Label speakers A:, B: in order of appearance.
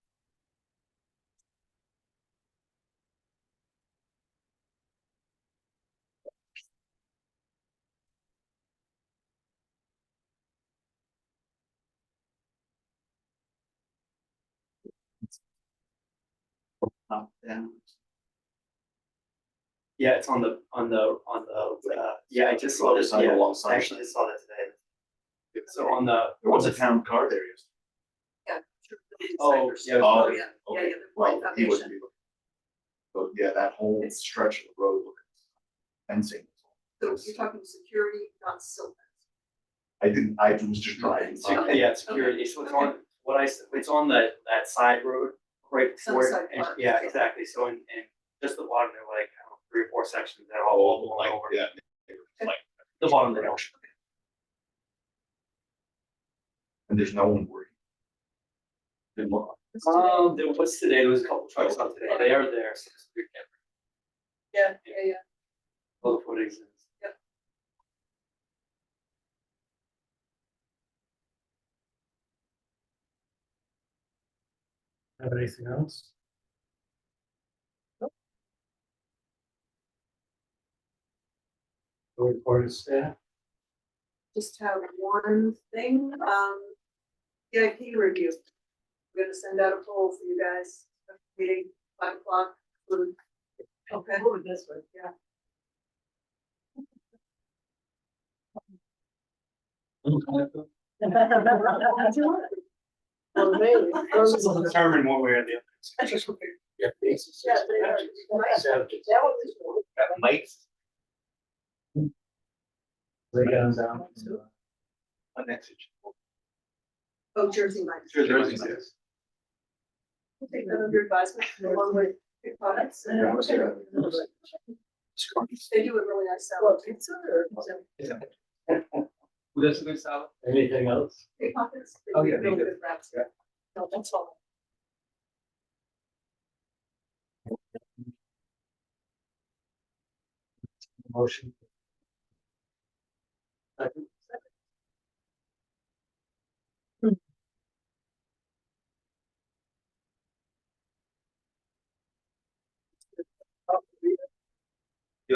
A: up down.
B: Yeah, it's on the, on the, on the, uh, yeah, I just saw
A: Well,
B: this,
A: it's not
B: yeah,
A: along
B: I
A: Sunshine.
B: actually just saw that today. So on the.
A: There was a town car there yesterday.
B: Oh, yeah.
A: Oh,
C: yeah, yeah,
A: Okay,
C: yeah, the
A: well, he
C: foundation.
A: wouldn't be. looking. But yeah, that whole
C: It's-
A: stretch of the road, look at fencing.
C: So you're talking security, not silver.
A: I didn't, I was just driving.
B: It's-
A: by.
B: Yeah, it's security, so it's on, what I, s- it's on the, that side road, right before, it,
C: Sunset
B: and-
C: Park.
B: yeah, exactly, so in, in just the bottom, there were like, I don't know, three or four sections that are all
A: Oh,
B: blown
A: like,
B: over.
A: yeah.
B: The bottom of the hill.
A: And there's no one worried. Good luck.
B: Um, there was today, there was a couple trucks on today, they are there, so it's pretty good.
C: Yeah, yeah, yeah.
B: all the footage is.
D: Have anything else? No Report is there.
C: Just have one thing, um, VIP review. We're gonna send out a poll for you guys, meeting five o'clock. Okay. Over this one, yeah.
D: Determine one way or the other. Lay down down.
A: A message.
C: Oh, Jersey Mike's.
A: Sure, there is.
C: We'll Take that under advisement, along with your products.
A: Yeah, what's your-
C: They do a really nice salad. Pizza or?
B: Who does the salad?
D: Anything else?
C: Pickpockets. They
B: Oh,
C: do
B: yeah, they
C: really
B: do.
C: good wraps.
B: Yeah.
C: No, that's all.
D: Motion.